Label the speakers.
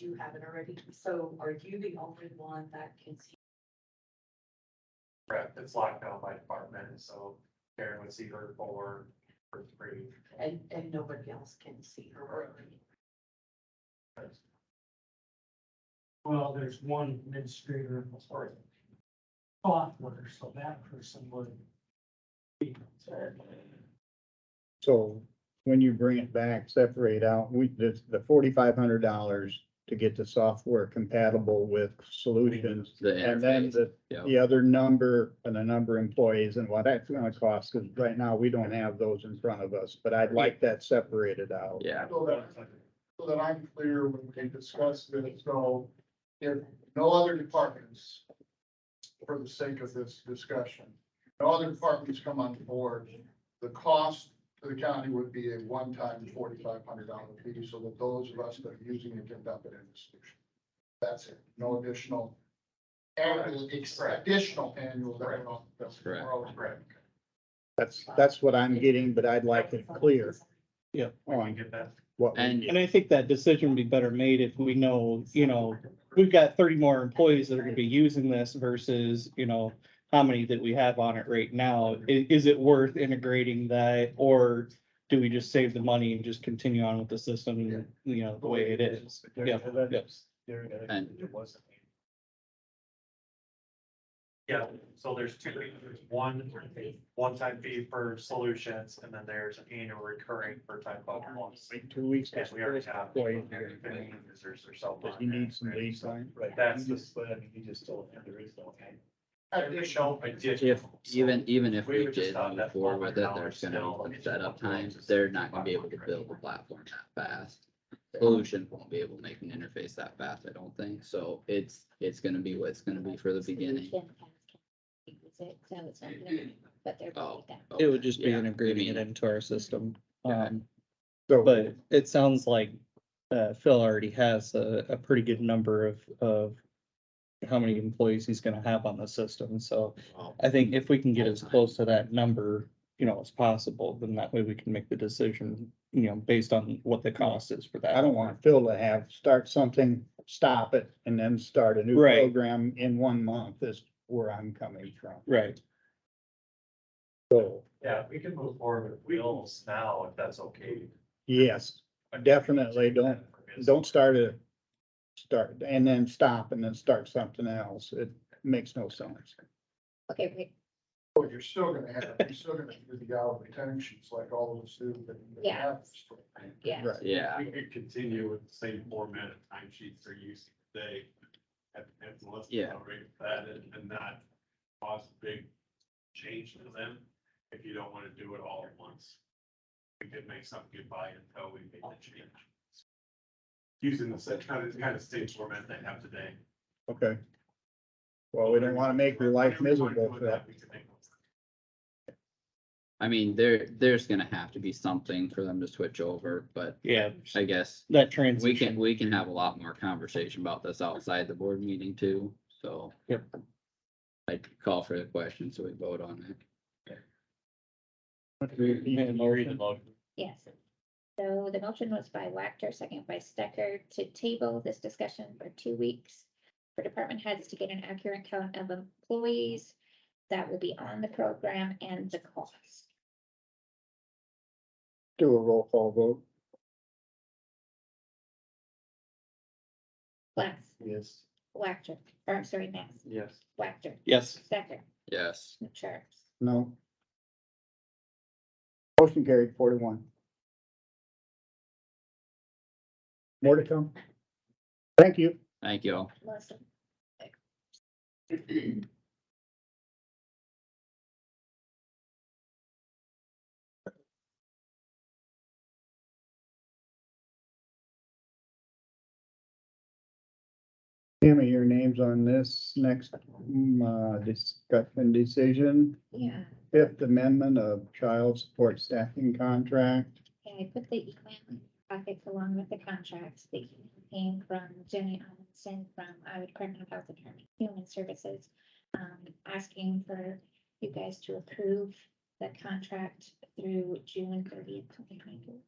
Speaker 1: you haven't already, so are you the only one that can see?
Speaker 2: Correct, it's locked down by department, so Karen would see her four or three.
Speaker 1: And, and nobody else can see her or read?
Speaker 3: Well, there's one administrator in the board. Software, so that person would. be concerned.
Speaker 4: So when you bring it back, separate out, we, the, the forty-five hundred dollars to get the software compatible with solutions.
Speaker 5: The
Speaker 4: And then
Speaker 5: interface,
Speaker 4: the,
Speaker 5: yeah.
Speaker 4: the other number and the number of employees and what that's gonna cost, because right now we don't have those in front of us, but I'd like that separated out.
Speaker 5: yeah,
Speaker 6: So that, so that I'm clear when we discuss this, so if no other departments, for the sake of this discussion, no other departments come on board, the cost to the county would be a one-time forty-five hundred dollar fee, so that those of us that are using it can dump it in the solution. That's it, no additional annual, additional annual. that we're on- that's- we're
Speaker 5: Correct.
Speaker 6: already-
Speaker 2: Correct,
Speaker 4: That's, that's what I'm getting, but I'd like it clear
Speaker 2: we can
Speaker 4: on
Speaker 2: get that.
Speaker 4: what. we
Speaker 5: and
Speaker 4: need.
Speaker 7: And I think that decision would be better made if we know, you know, we've got thirty more employees that are gonna be using this versus, you know, how many that we have on it right now. I- is it worth integrating that or do we just save the money and just continue on with the system, you know, the way it is? Yeah, yes.
Speaker 5: And-
Speaker 2: Yeah, so there's two, fees. There's one, one-time fee for solutions, and then there's an annual recurring for type of loss.
Speaker 4: Wait Two weeks.
Speaker 2: Yes, we already have.
Speaker 4: Employee here.
Speaker 2: Fifteen users or so.
Speaker 4: Does he need some lead time?
Speaker 2: Right, that's the
Speaker 3: but I mean, you just told him there is no.
Speaker 2: additional,
Speaker 5: if,
Speaker 2: additional.
Speaker 5: even, even if
Speaker 2: We
Speaker 5: we
Speaker 2: would just
Speaker 5: did
Speaker 2: thought
Speaker 5: move
Speaker 2: that
Speaker 5: forward with it,
Speaker 2: $400
Speaker 5: there's gonna
Speaker 2: still,
Speaker 5: be
Speaker 2: it's
Speaker 5: some setup
Speaker 2: still-
Speaker 5: times. They're not gonna be able to build a platform that fast. Solution won't be able to make an interface that fast, I don't think. So it's, it's gonna be what it's gonna be for the beginning. Oh.
Speaker 7: It would just be
Speaker 5: yeah, I
Speaker 7: integrating
Speaker 5: mean,
Speaker 7: it into our system.
Speaker 5: Yeah.
Speaker 7: Um,
Speaker 4: So.
Speaker 7: but it sounds like, uh, Phil already has a, a pretty good number of, of how many employees he's gonna have on the system, so.
Speaker 5: well,
Speaker 7: I think if we can get as
Speaker 5: Full-time.
Speaker 7: close to that number, you know, as possible, then that way we can make the decision, you know, based on what the cost is for that.
Speaker 4: I don't want Phil to have, start something, stop it, and then start a new
Speaker 7: Right.
Speaker 4: program in one month is where I'm coming from.
Speaker 7: Right,
Speaker 4: So,
Speaker 2: Yeah, we can move forward with wheels now, if that's okay.
Speaker 4: yes, Definitely don't- don't start a, start, and then stop and then start something else. It makes no sense.
Speaker 8: Okay, wait,
Speaker 6: But you're still gonna have, you're still gonna do the hour retentions like all of us do, but.
Speaker 8: Yeah. yeah,
Speaker 4: Right.
Speaker 5: Yeah,
Speaker 9: We could continue with the same format of timesheets they're using today. Have, have less
Speaker 5: Yeah.
Speaker 9: tolerate that and, and not cause a big change to them if you don't wanna do it all at once. We could make something goodbye until we make the change. Using the same kind of, kind of same format they have today.
Speaker 4: Okay. Well, we don't want to make your life
Speaker 9: Whatever you wanna
Speaker 4: miserable
Speaker 9: do
Speaker 4: for
Speaker 9: with
Speaker 4: that.
Speaker 9: we can make it work.
Speaker 5: I mean, there, there's gonna have to be something for them to switch over, but
Speaker 7: yeah,
Speaker 5: I guess
Speaker 7: that
Speaker 5: we can,
Speaker 7: transition,
Speaker 5: we can have a lot more conversation about this outside the board meeting too, so.
Speaker 7: Yep.
Speaker 5: I'd call for the question, so we vote on it.
Speaker 8: yes. So the motion was by Wactor, second by Stecker, to table this discussion for two weeks for department heads to get an accurate count of employees that will be on the program and the cost.
Speaker 4: Do a roll call vote.
Speaker 8: Glass,
Speaker 3: Yes.
Speaker 8: Wactor, or I'm sorry, Mass,
Speaker 3: Yes.
Speaker 8: Wactor,
Speaker 7: yes,
Speaker 8: Stecker,
Speaker 5: Yes,
Speaker 8: Charles.
Speaker 4: No. Motion carried four to one. More to come. Thank you.
Speaker 5: thank you all.
Speaker 8: Melissa.
Speaker 4: Tammy, your name's on this next mm, uh, discussion decision,
Speaker 8: Yeah,
Speaker 4: fifth amendment of child support staffing contract.
Speaker 8: and I put the email in your pockets along with the contracts that you came from Jenny Amundson from our Department of Health and Human Services. Um, asking for you guys to approve the contract through June thirtieth, twenty twenty-two.